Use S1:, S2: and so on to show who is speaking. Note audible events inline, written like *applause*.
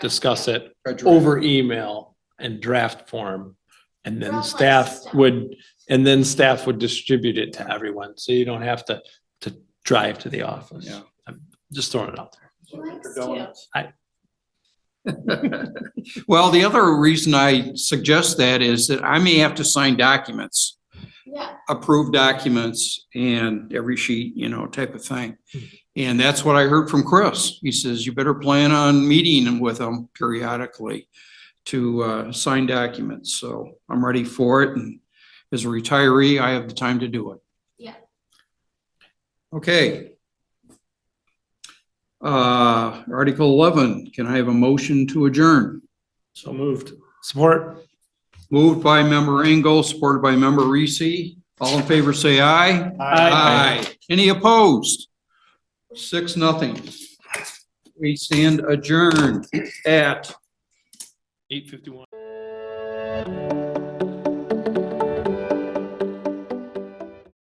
S1: discuss it
S2: Frederick.
S1: over email and draft form. And
S3: Well,
S1: then
S3: let's
S1: staff
S3: stop.
S1: would, and then staff would distribute it to everyone, so you don't have to, to drive to the office.
S2: Yeah.
S1: I'm Just throwing it out there.
S3: He likes to.
S2: donuts.
S1: I-
S2: *laughs* Well, the other reason I suggest that is that I may have to sign documents,
S3: Yeah,
S2: approved documents and every sheet, you know, type of thing. And that's what I heard from Chris. He says, you better plan on meeting with them periodically to uh, sign documents. So I'm ready for it. And as a retiree, I have the time to do it.
S3: Yeah.
S2: Okay. Uh, Article 11, can I have a motion to adjourn?
S1: So moved. Support.
S2: Moved by member Engel, supported by member Reese. All in favor, say aye. Any opposed? Six, nothing. We stand adjourned at
S1: Eight fifty-one.